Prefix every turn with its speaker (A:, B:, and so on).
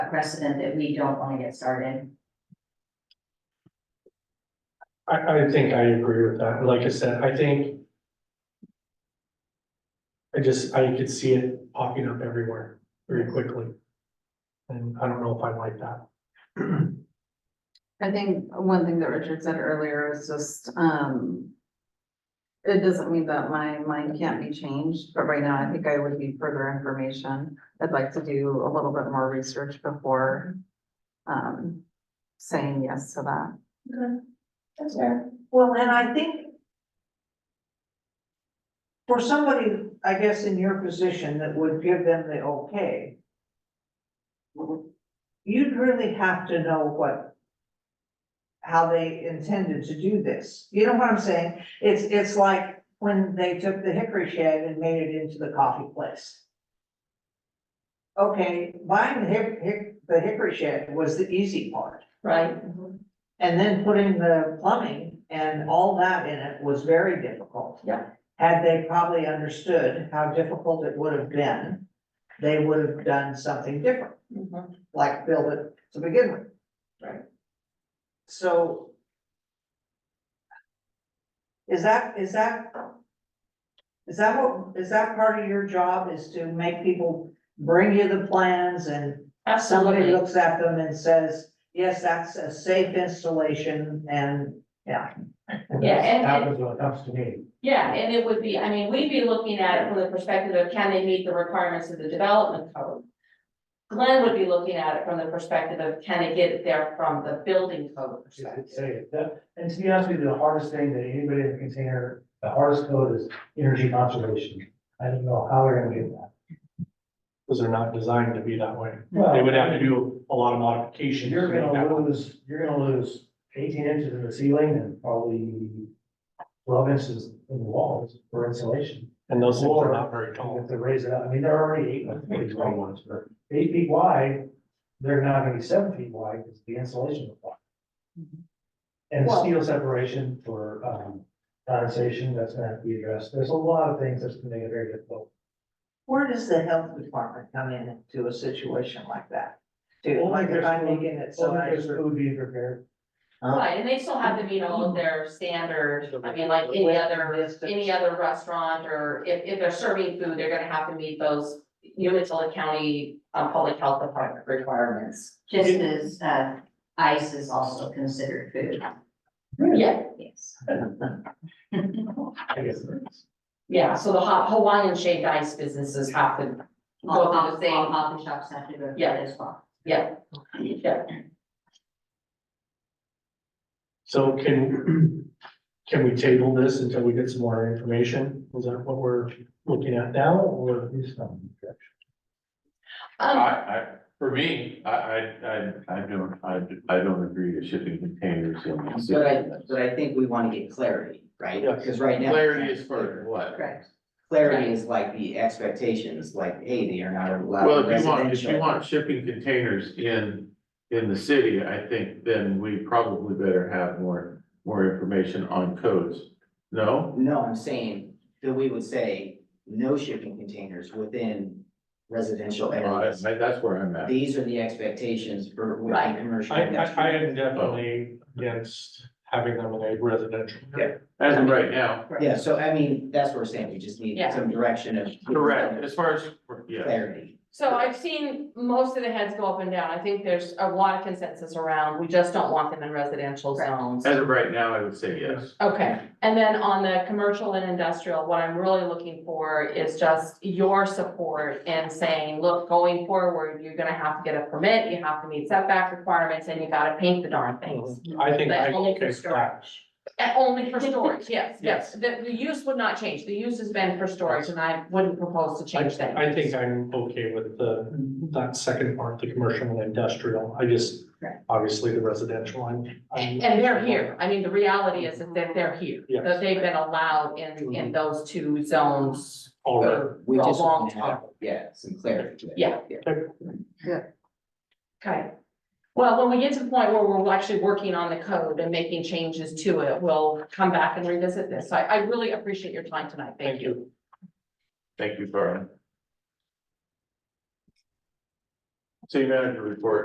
A: precedent that we don't wanna get started.
B: I, I think I agree with that. Like I said, I think. I just, I could see it popping up everywhere very quickly. And I don't know if I like that.
C: I think one thing that Richard said earlier is just, um. It doesn't mean that my mind can't be changed, but right now I think I would need further information. I'd like to do a little bit more research before. Um, saying yes to that.
D: That's fair. Well, and I think for somebody, I guess, in your position that would give them the okay, you'd really have to know what, how they intended to do this. You know what I'm saying? It's, it's like when they took the hickory shed and made it into the coffee place. Okay, buying the hick, hick, the hickory shed was the easy part.
A: Right.
D: And then putting the plumbing and all that in it was very difficult.
A: Yeah.
D: Had they probably understood how difficult it would have been, they would have done something different,
A: Mm-hmm.
D: like build it to begin with.
A: Right.
D: So. Is that, is that? Is that what, is that part of your job is to make people bring you the plans and somebody
A: Absolutely,
D: looks at them and says, yes, that's a safe installation and, yeah.
A: Yeah, and-
B: That was what that was to me.
A: yeah, and it would be, I mean, we'd be looking at it from the perspective of can they meet the requirements of the development code? Glenn would be looking at it from the perspective of can it get there from the building code
E: She did
A: perspective?
E: say it. That- and to be honest with you, the hardest thing that anybody in the container, the hardest code is energy conservation. I don't know how we're gonna do that.
B: Because they're not designed to be that way.
E: Well,
B: They would have to do a lot of modifications. to
E: You're
B: make that
E: gonna
B: work.
E: lose, you're gonna lose eighteen inches in the ceiling and probably twelve inches in the walls for insulation.
B: And those things are not very
E: You
B: tall.
E: have to raise it up. I mean, they're already eight, feet wide. eight feet wide. They're not gonna be seven feet wide because the insulation will fall. And
D: Well-
E: steel separation for, um, condensation, that's gonna have to be addressed. There's a lot of things that's gonna make it very difficult.
D: Where does the health department come in to a situation like that? Dude,
E: Only
D: like if
E: there's
D: I'm
E: food-
D: making it so
E: Only
D: nice.
E: there's food being prepared.
A: Right, and they still have to meet all of their standard, I mean, like any other any other restaurant or if, if they're serving food, they're gonna have to meet those Umatilla County, uh, Public Health Department requirements.
F: Just as, uh, ice is also considered food.
A: Yeah,
F: Yes.
E: I guess.
A: yeah, so the Ha- Hawaiian shaped ice businesses have to
F: All
A: go through
F: coffee,
A: the
F: all
A: same,
F: coffee shops have to go through
A: Yeah.
F: it as well.
A: yeah, yeah.
B: So can, can we table this until we get some more information? Is that what we're looking at now or?
G: I,
A: Um,
G: I, for me, I, I, I, I don't, I, I don't agree with shipping containers in the
H: But I,
G: city.
H: but I think we wanna get clarity, right?
B: Yeah.
H: Cause right now.
G: Clarity is for what?
F: Correct.
H: Clarity is like the expectations, like, hey, they are not allowed
G: Well, if you want, if you
H: residential.
G: want shipping containers in, in the city, I think then we probably better have more, more information on codes. No?
H: No, I'm saying that we would say no shipping containers within residential
G: Well, I-
H: areas.
G: I- That's where I'm at.
H: These are the expectations for
A: Right.
H: within commercial.
B: I, I, I
H: industrial.
B: am definitely against having them in a residential.
H: Yeah.
G: As of right now,
H: Yeah, so I mean, that's what we're saying, we just need
A: Yeah.
H: some direction of.
G: correct, as far as, yeah.
H: Clarity.
A: so I've seen most of the heads go up and down. I think there's a lot of consensus around, we just don't want them in residential zones.
G: As of right now, I would say yes.
A: Okay, and then on the commercial and industrial, what I'm really looking for is just your support in saying, look, going forward, you're gonna have to get a permit, you have to meet setback requirements, and you gotta paint the darn things.
B: I think I
A: But only
B: can
A: for
B: fix that.
A: storage. And only for storage, yes, yes, the, the use would not change, the use has been for storage, and I wouldn't propose to change that.
B: I think I'm okay with the, that second part, the commercial and industrial. I just,
F: Right.
B: obviously the residential, I'm, I'm.
A: And they're here, I mean, the reality is that they're- they're here,
B: Yes.
A: that they've been allowed in, in those two zones
B: Already.
H: But we
A: For a
H: just
A: long
H: want to have, yeah, some clarity. to it.
A: Yeah. Okay. Well, when we get to the point where we're actually working on the code and making changes to it, we'll come back and revisit this. I, I really appreciate your time tonight. Thank you.
G: Thank you, Carl. City manager report.